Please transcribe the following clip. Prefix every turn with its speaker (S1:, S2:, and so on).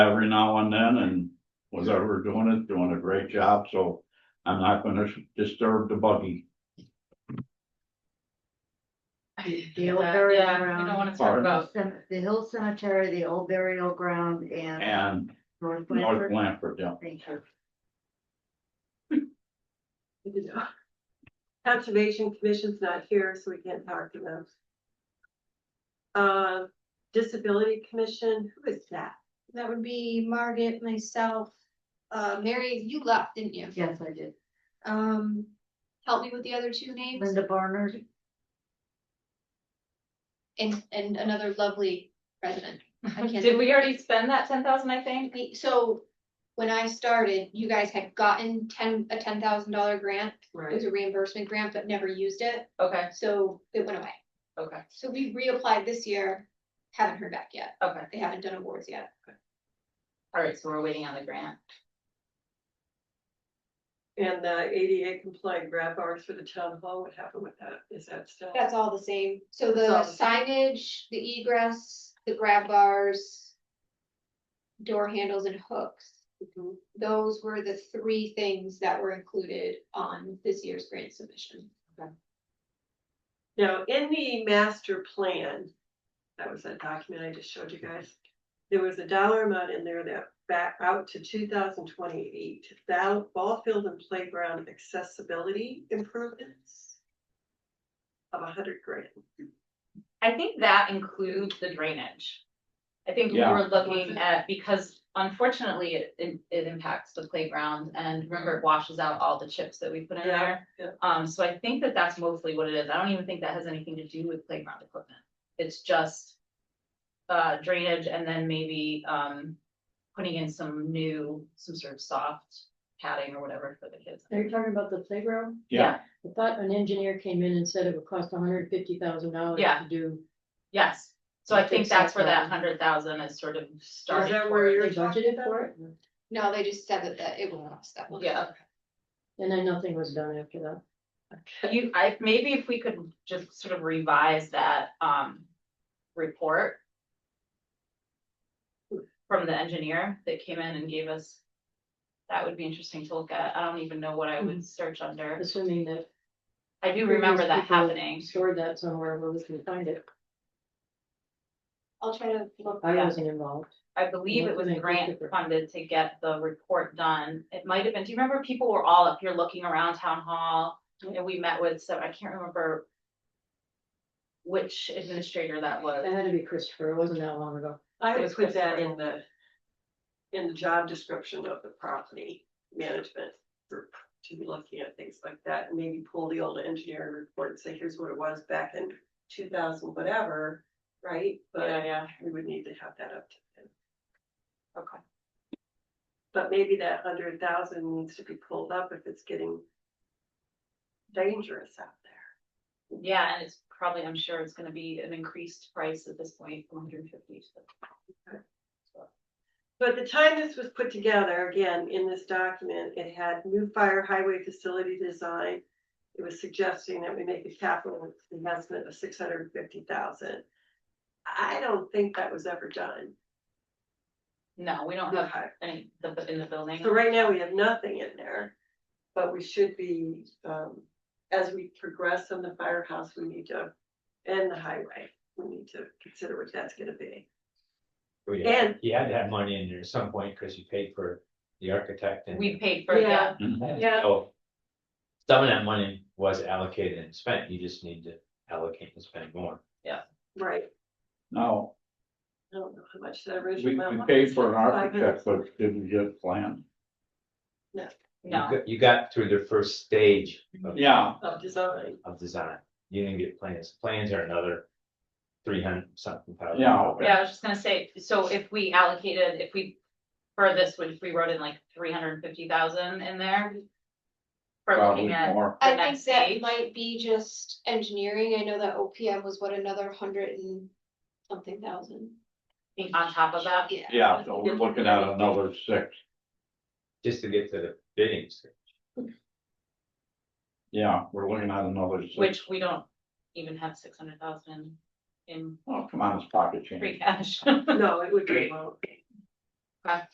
S1: every now and then and was ever doing it, doing a great job, so I'm not gonna disturb the buggy.
S2: The old
S3: Yeah,
S2: burial
S3: yeah, We don't
S2: ground.
S3: wanna talk
S1: Pardon?
S3: about,
S2: Cem- The Hill Cemetery, the old burial ground and
S1: And
S2: North Blanford.
S1: North Blanford, yeah,
S2: Thank you.
S4: Conservation Commission's not here, so we can't talk to them. Uh, Disability Commission, who is that?
S5: That would be Margaret, myself, uh, Mary, you left, didn't you?
S2: Yes, I did.
S5: Um, help me with the other two names
S2: Linda Barnard,
S5: and, and another lovely resident. I can't-
S3: did we already spend that ten thousand, I think?
S5: So when I started, you guys had gotten ten, a ten thousand dollar grant. It was a reimbursement grant, but never used it.
S3: Okay,
S5: So it went away.
S3: okay,
S5: So we reapplied this year. Haven't heard back yet.
S3: okay.
S5: They haven't done awards yet.
S3: All right, so we're waiting on the grant.
S4: And the ADA compliant grab bars for the town hall, what happened with that? Is that still?
S5: That's all the same. So
S4: It's all
S5: the
S4: the
S5: signage, the egress, the grab bars, door handles and hooks,
S4: Mhm.
S5: those were the three things that were included on this year's grant submission.
S4: Now, in the master plan, that was that document I just showed you guys. There was a dollar amount in there that back out to two thousand twenty-eight, ball, ball field and playground accessibility improvements of a hundred grand.
S3: I think that includes the drainage. I think we
S1: Yeah.
S3: were looking at, because unfortunately, it, it it impacts the playground and remember it washes out all the chips that we put in
S4: Yeah,
S3: there.
S4: yeah.
S3: Um, so I think that that's mostly what it is. I don't even think that has anything to do with playground equipment. It's just uh, drainage and then maybe, um, putting in some new, some sort of soft padding or whatever for the kids.
S6: Are you talking about the playground?
S1: yeah,
S6: I thought an engineer came in and said it would cost hundred fifty thousand dollars
S3: Yeah.
S6: to do.
S3: Yes, so I
S6: I
S3: think
S6: think
S3: that's
S6: so,
S3: where that
S6: probably.
S3: hundred thousand is sort of
S4: Is
S3: starting.
S4: that
S3: for.
S4: where
S6: They
S4: you're talking
S6: budgeted
S4: about?
S6: for it,
S5: No, they just said that, that it will cost that one.
S3: Yeah.
S6: and then nothing was done after that.
S3: You, I, maybe if we could just sort of revise that, um, report. From the engineer that came in and gave us. That would be interesting to look at. I don't even know what I
S4: Mm-hmm.
S3: would search under.
S6: Assuming that.
S3: I do remember that
S6: previous people
S3: happening.
S6: Stored that somewhere where we can find it.
S5: I'll try to look.
S6: I
S3: Yeah.
S6: wasn't involved.
S3: I believe it was
S6: Nothing
S3: grant
S6: particular.
S3: funded to get the report done. It might have been, do you remember people were all up here looking around town hall? And we met with, so I can't remember. Which administrator that was.
S6: That had to be Christopher. It wasn't that long ago.
S4: I
S3: It was
S4: would put that
S3: Christopher.
S4: in the, in the job description of the property management group, to be looking at things like that, and maybe pull the old engineering report and say, here's what it was back in two thousand whatever, right? But
S3: yeah,
S4: we would need to have that up to them,
S3: okay.
S4: but maybe that hundred thousand needs to be pulled up if it's getting dangerous out there.
S3: Yeah, and it's probably, I'm sure it's gonna be an increased price at this point, one hundred and fifty.
S4: But the time this was put together, again, in this document, it had new fire highway facility design. It was suggesting that we make a capital investment of six hundred and fifty thousand. I don't think that was ever done.
S3: No, we don't have any, the, in the building.
S4: So right now, we have nothing in there. But we should be, um, as we progress on the firehouse, we need to, and the highway, we need to consider what that's gonna be.
S7: We had-
S4: And
S7: You Oh, had to have money in there at some point because you paid for the architect and.
S3: We paid for, yeah,
S4: Yeah. yeah.
S7: So Some of that money was allocated and spent, you just need to allocate and spend more.
S4: Right,
S1: now,
S4: I don't know how much that
S1: we,
S4: original.
S1: we
S4: amount was.
S1: paid for an
S4: Five hundred.
S1: architect, but didn't get planned,
S7: You
S3: no,
S7: got- You got through the first stage of.
S1: yeah,
S4: Of design.
S7: Of design, you didn't get plans, plans are another three hundred something thousand.
S1: Yeah,
S7: dollars.
S3: yeah, I was just gonna say, so if we allocated, if we, for this, if we wrote in like three hundred and fifty thousand in there. For
S1: probably
S3: looking at
S1: more.
S3: the
S5: I
S3: next
S5: think that
S3: page.
S5: might be just engineering. I know that OPM was what, another hundred and something thousand.
S3: being on top of that,
S5: Yeah.
S1: Yeah, so we're looking at another six,
S7: Just to get to the bidding stage.
S1: yeah, we're looking at another six.
S3: which we don't even have six hundred thousand in
S1: Oh, come on, it's pocket change.
S3: free cash.
S4: No, it would be low.
S3: Okay.